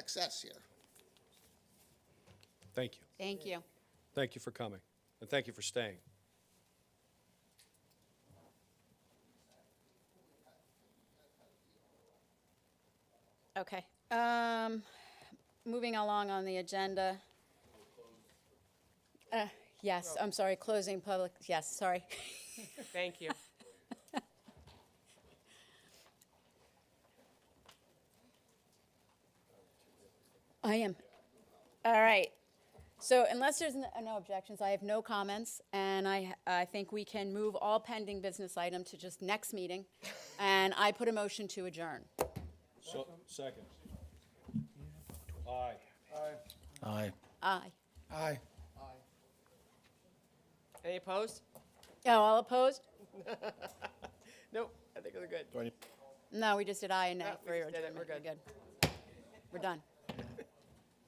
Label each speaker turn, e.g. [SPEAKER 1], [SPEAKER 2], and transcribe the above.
[SPEAKER 1] excess here.
[SPEAKER 2] Thank you.
[SPEAKER 3] Thank you.
[SPEAKER 2] Thank you for coming, and thank you for staying.
[SPEAKER 3] Okay. Um, moving along on the agenda.
[SPEAKER 4] Oh,
[SPEAKER 3] Uh, yes, I'm sorry, closing public, yes, sorry.
[SPEAKER 4] Thank you.
[SPEAKER 3] I am. All right. So unless there's n- uh, no objections, I have no comments, and I, I think we can move all pending business item to just next meeting. And I put a motion to adjourn.
[SPEAKER 2] So, second. Aye.
[SPEAKER 5] Aye.
[SPEAKER 3] Aye.
[SPEAKER 5] Aye.
[SPEAKER 4] Any opposed?
[SPEAKER 3] Oh, all opposed?
[SPEAKER 4] Nope, I think we're good.
[SPEAKER 3] No, we just did aye and nay
[SPEAKER 4] No, we
[SPEAKER 3] for your
[SPEAKER 4] just did it. We're
[SPEAKER 3] adjournment. We're
[SPEAKER 4] good.
[SPEAKER 3] good. We're done.